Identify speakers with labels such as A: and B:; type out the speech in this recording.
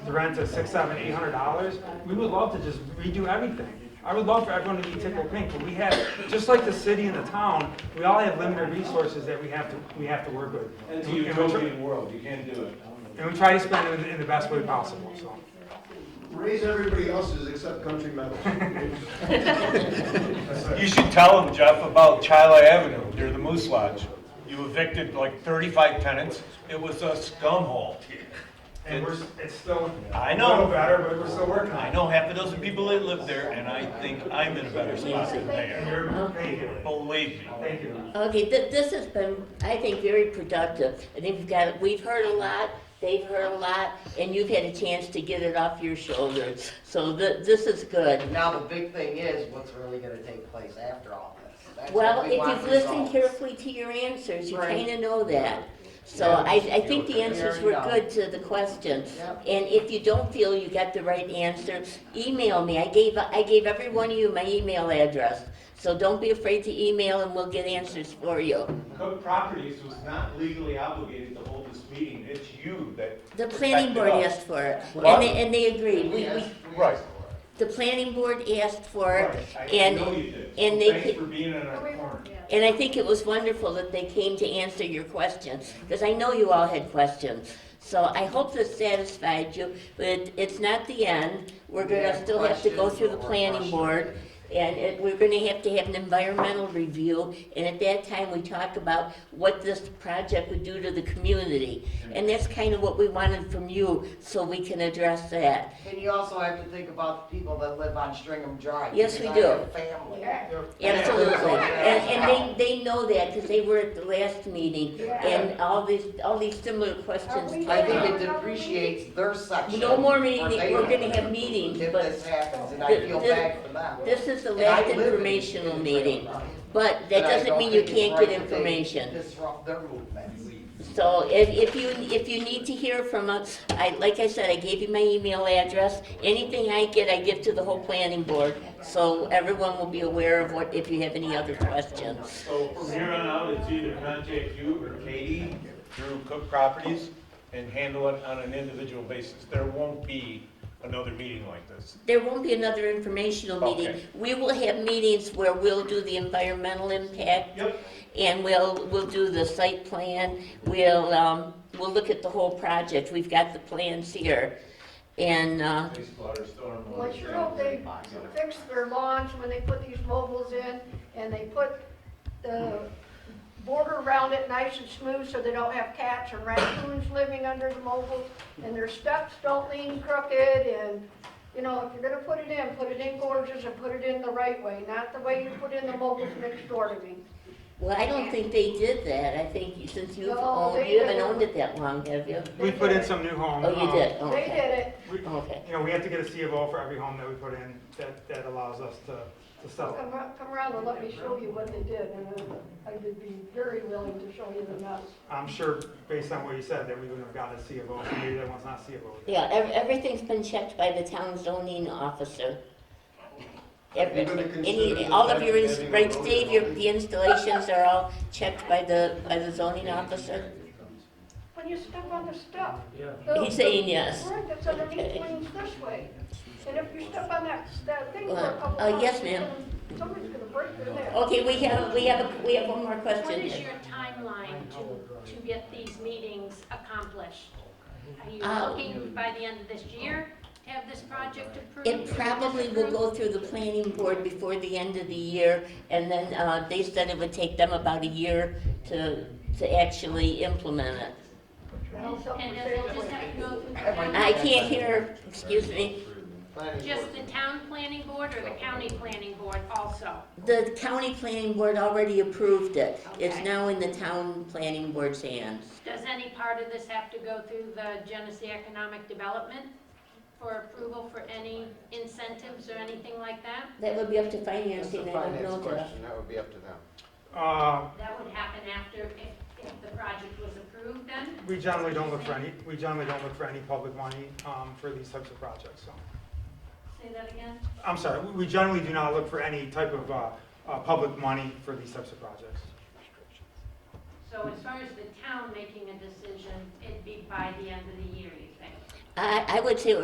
A: the rent of six, seven, eight hundred dollars, we would love to just redo everything. I would love for everyone to be tickle pink, but we have, just like the city and the town, we all have limited resources that we have to, we have to work with.
B: It's a
A: And we- and we try-
B: utopian world, you can't do it.
A: And we try to spend it in- in the best way possible, so.
C: Raise everybody else's except country meadows.
D: You should tell them, Jeff, about Chila Avenue near the Moose Lodge. You evicted like 35 tenants. It was a scum hole.
A: And we're, s- it's still
D: I
A: a
D: know.
A: little better, but we're still working on
D: I
A: it.
D: know half a dozen people that live there, and I think I'm in a better spot than they
A: And
D: are.
A: you're, thank you,
D: Believe me.
A: thank you.
E: Okay, th- this has been, I think, very productive. I think we've got, we've heard a lot, they've heard a lot, and you've had a chance to get it off your shoulders. So th- this is good.
F: Now, the big thing is, what's really gonna take place after all this? That's what
E: Well,
F: we
E: if
F: want
E: you've listened
F: results.
E: carefully to your answers, you
F: Right.
E: kinda know that. So
F: Yeah.
E: I, I think the
F: We
E: answers
F: already
E: were
F: know.
E: good to the question.
F: Yep.
E: And if you don't feel you got the right answer, email me. I gave, I gave every one of you my email address. So don't be afraid to email and we'll get answers for you.
D: Cook Properties was not legally obligated to hold this meeting. It's you that.
E: The planning board
D: Protected us.
E: asked for it,
D: Well-
E: and they, and they agreed. We, we,
F: Yes.
D: Right.
E: the planning board asked for it,
D: I know
E: and,
D: you did.
E: and they
D: Thanks
E: ca-
D: for being in our corner.
E: and I think it was wonderful that they came to answer your questions, because I know you all had questions. So I hope this satisfied you, but it- it's not the end. We're
F: We
E: gonna
F: have
E: still have to go
F: questions,
E: through the
F: but we're
E: planning
F: questioning.
E: board, and it, we're gonna have to have an environmental review, and at that time, we talk about what this project would do to the community. And that's kind of what we wanted from you, so we can address that.
F: And you also have to think about the people that live on Stringham Drive.
E: Yes, we
F: because
E: do.
F: I have Family.
E: Absolutely, and, and they, they know that, because they were at the last meeting, and all these, all these similar questions. came
F: I think
E: up.
F: it depreciates their section.
E: No more
F: where
E: meeting,
F: they
E: we're
F: live.
E: gonna have meetings,
F: If this
E: but
F: happens, and
E: Th-
F: I feel
E: th-
F: bad for them.
E: this is the
F: And I
E: last
F: live in-
E: informational
F: in
E: meeting.
F: Stringham Drive.
E: But
F: And
E: that
F: I
E: doesn't
F: don't
E: mean you
F: think it's
E: can't
F: right
E: get
F: that they
E: information.
F: Disrupt their movement.
E: So if, if you, if you need to hear from us, I, like I said, I gave you my email address. Anything I get, I give to the whole planning board, so everyone will be aware of what, if you have any other questions.
D: So from here on out, it's either contact you or Katie through Cook Properties and handle it on an individual basis. There won't be another meeting like this.
E: There won't be another informational meeting.
D: Okay.
E: We will have meetings where we'll do the environmental impact.
D: Yep.
E: And we'll, we'll do the site plan, we'll, um, we'll look at the whole project, we've got the plans here. And, uh,
D: Wastewater, stormwater.
G: Well, sure hope they fix their lawns when they put these mobiles in, and they put the border around it nice and smooth, so they don't have cats or raccoons living under the mobiles, and their steps don't lean crooked, and, you know, if you're gonna put it in, put it in gorgeous and put it in the right way, not the way you put in the mobiles next door to me.
E: well, I don't think they did that, I think since you've
G: No,
E: owned,
G: they
E: you haven't
G: didn't.
E: owned it that long, have you?
A: We put in some new home.
E: Oh, you
A: um,
E: did, Oh,
G: They
E: okay,
G: did it,
A: we-
E: okay.
A: You know, we have to get a C of O for every home that we put in, that, that allows us to, to sell it.
G: come, ar- come around and let me show you what they did, and uh, I- I would be very willing to show you the mess.
A: I'm sure, based on what you said, that we wouldn't have got a C of O, maybe that one's not C of O.
E: Yeah, ev- everything's been checked by the town zoning officer. Every,
C: Even to consider
E: any,
C: the
E: all of your,
C: fact
E: ins-
C: that
E: right,
C: having a
E: Dave, your, the installations are all checked by the, by the zoning officer?
G: When you step on the stuff.
E: He's saying yes.
G: Right, that's underneath
E: Okay.
G: swings this way. And if you step on that, that thing for a
E: Well,
G: couple
E: uh,
G: times,
E: yes,
G: it's
E: ma'am. Oh.
G: gonna- Somebody's gonna break their neck.
E: Okay, we have, we have, a- we have one more
H: What is
E: question.
H: your timeline to, to get these meetings accomplished? Are you
E: Uh,
H: looking by the end of this year to have this project approved?
E: It probably will go through the planning board before the end of the year, and then, uh, they said it would take them about a year to, to actually implement it.
G: Now, something
H: And
G: say
H: it'll
G: that
H: just
G: way.
H: have to go through the
F: Everyone-
H: town,
E: I can't hear, excuse me,
F: Planning
H: just
F: board.
H: the town planning board or the county planning board also?
E: the county planning board already approved it. It's
H: Okay.
E: now in the town planning board's hands.
H: Does any part of this have to go through the Genesee Economic Development for approval for any incentives or anything like that?
E: That would be up to
F: That's a
E: financing, I don't know
F: finance
E: the.
F: question, that would be up to them.
A: Uh,
H: That would happen after, if, if the project was approved then?
A: we generally don't look for any, we generally don't look for any public money, um, for these types of projects, so.
H: Say that again?
A: I'm sorry, we- we generally do not look for any type of, uh, uh, public money for these types of projects.
H: So as far as the town making a decision, it'd be by the end of the year, you think?
E: I, I would say it